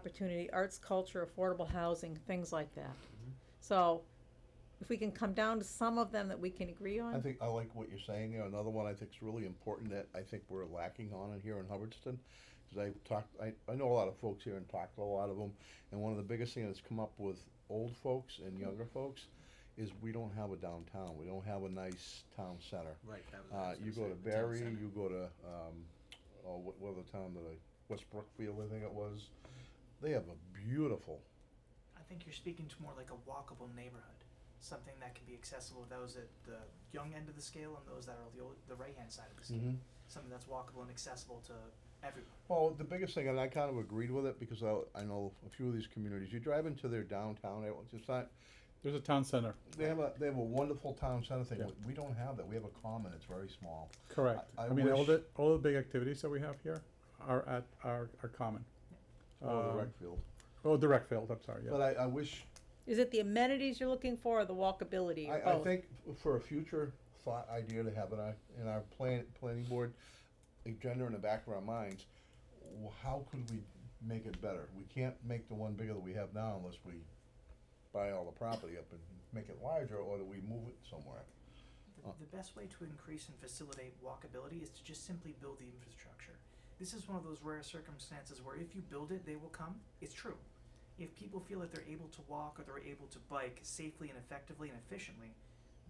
opportunity, arts, culture, affordable housing, things like that. Mm-hmm. So if we can come down to some of them that we can agree I Uh-huh. on, think, I like what you're saying there. Another one I think is really important that I think we're lacking on in here in Hubbardston. Cause I've talked, I, I know a lot of folks here and talked to a lot of them. And one of the biggest things that's come up with old folks Mm-hmm. and younger folks is we don't have a downtown. We don't have a nice town center. Right, that was. what I Uh, was you go gonna to say, the town Barry, center. you go to, um, oh, what, what other town that I, West Brookfield, I think it was. They have a beautiful, I think you're speaking to more like a walkable neighborhood, something that can be accessible to those at the young end of the scale and those that are the old, the right hand side of the scale. Mm. Mm-hmm. Something that's walkable and accessible to everyone. Well, the biggest thing, and I kind of agreed with it because I, I know a few of these communities. You drive into their downtown, eh, it- it's not. There's a town center, They have a they have a wonderful town center thing. Yeah. We don't have that. We have a common. It's very small. correct. I- I I mean, all wish- the, all the big activities that we have here are at, are, are common. Or the Um, rec field. Oh, direct field, I'm sorry, yeah. But I, I wish is it the amenities you're looking for or the walkability or I, I both? think f- for a future thought idea to have in our in our plan planning board agenda in the back of our minds, wh- how could we make it better? We can't make the one bigger that we have now unless we buy all the property up and make it larger, or do we move it somewhere? The, the best way to increase and facilitate walkability is to just simply build the infrastructure. This is one of those rare circumstances where if you build it, they will come. It's true. If people feel that they're able to walk or they're able to bike safely and effectively and efficiently,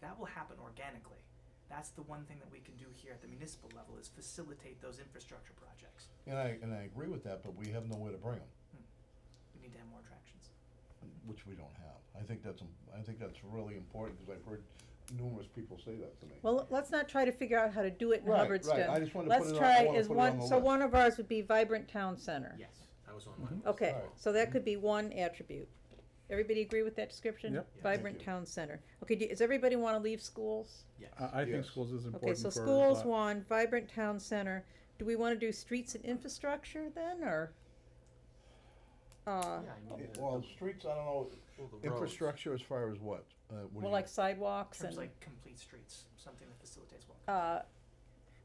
that will happen organically. That's the one thing that we can do here at the municipal level is facilitate those infrastructure projects. And I, and I agree with that, but we have nowhere to bring them, We need to have more attractions. which we don't have. I think that's, im- I think that's really important, because I've heard numerous people say that to me. Well, let's not try to figure out how to do it in Right, right. Hubbardston. I just wanted to put Let's it on- I try, wanna is put it on one, the so list. one of ours would be vibrant town center. Yes, that was on mine. Mm-hmm. Okay, Alright. so that could be one attribute. Everybody agree with that description? Yep. Yeah. Vibrant Thank you. town center. Okay, do- does everybody wanna leave schools? Yes. I, I think Yes. schools is Okay, important for. so schools uh, one, vibrant town center. Do we wanna do streets and infrastructure then, or? Yeah, Uh, I mean, It- the- Well, the- streets, I don't know, well, the roads. infrastructure as far as what? Uh, what do well, you- like sidewalks In terms and, of like complete streets, something that facilitates walk. uh,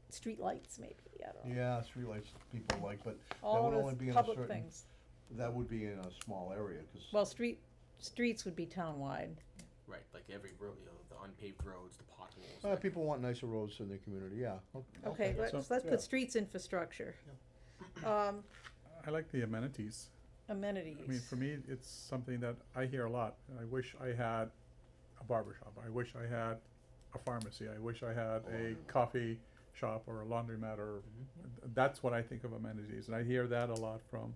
streetlights maybe, I don't know. Yeah, streetlights people like, but that All would only those be in a public certain, things. that would be in a small area, cause, Well, street, streets would be townwide. Right, like every road, you know, the unpaved roads, the potholes. uh, that- people want nicer roads in their community, yeah. o- Okay, So- let's, let's yeah. put streets infrastructure. Um, I like the amenities. amenities. I mean, for me, it's something that I hear a lot. I wish I had a barber shop. I wish I had a pharmacy. I wish I had a coffee shop or a laundromat or, Mm-hmm. that's what I think of amenities. And I hear that a lot from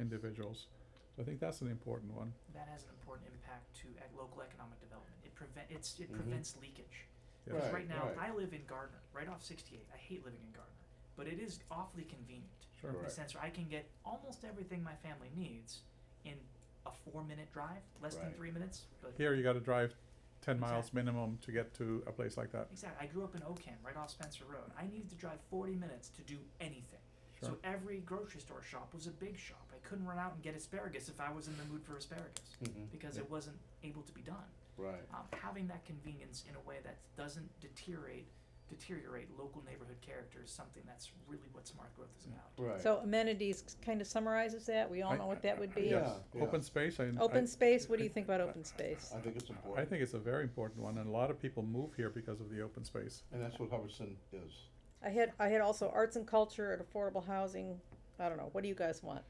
individuals. So I think that's an important one. That has an important impact to ec- local economic development. It prevent it's it Mhm. prevents leakage. Yeah. Because Right, right now, right. I live in Gardner, right off 68. I hate living in Gardner, but it is awfully convenient Sure. in Right. the sense where I can get almost everything my family needs in a four-minute drive, less than Right. three minutes. But Here, you gotta drive ten miles Exactly. minimum to get to a place like that. exactly, I grew up in Ocam, right off Spencer Road. I needed to drive 40 minutes to do anything. So Sure. every grocery store shop was a big shop. I couldn't run out and get asparagus if I was in the mood for asparagus Mm-hmm. because it wasn't able to be done. Right. um, having that convenience in a way that doesn't deteriorate deteriorate local neighborhood character is something that's really what smart growth is about. Right. So amenities kind of summarizes that, we all I- know what that would be. Yeah, Yes, yeah. open space, I. Open I- space, what do you think about open space? I think it's I important, think it's a very important one, and a lot of people move here because of the open space. and that's what Hubbardston is. I had, I had also arts and culture and affordable housing, I don't know, what do you guys want?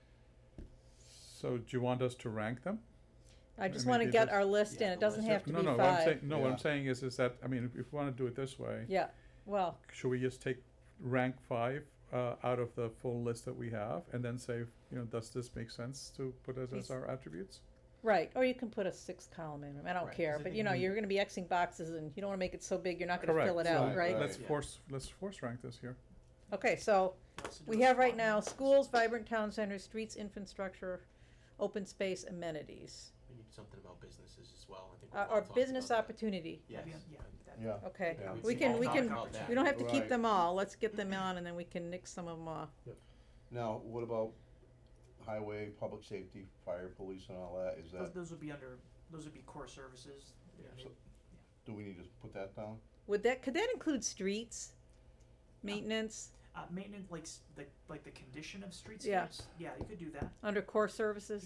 So do you want us to rank them? I I just mean, wanna they get just- our list Yeah, in, it the doesn't list. have to No, be no, what I'm saying, five. no, what Yeah. I'm saying is, is that, I mean, if, if we wanna do it this way, Yeah, well, should we just take rank five, uh, out of the full list that we have, and then say, you know, does this make sense to put as, Yes. as our attributes? right, or you can put a sixth column in, I Right, don't 'cause care, I but think you know, we- you're gonna be Xing boxes and you don't wanna make it so big, you're not gonna Correct. fill it out, Right, right? right. Let's Yeah. force, let's force rank this here. Okay, so, We also do we a have right spot now analysis. schools, vibrant town centers, streets, infrastructure, open space, amenities. We need something about businesses as well, I think. we've Uh, all or talked business about that. opportunity, Yes. That'd be- yeah, that- Yeah. okay, Yeah, we see can, all we talked can, about that. we don't have to keep Right. them all, let's get them on and then we can nix some of them off. Now, what about highway, public safety, fire, police and all that? Is Those, that, those would be under those would be core services. you know, Yeah. they- So- do we need to put that down? Would that, could that include streets? Maintenance, Uh, maintenance, like, s- like, like the condition of streetscapes? Yeah. Yeah, you could do that. Under core services?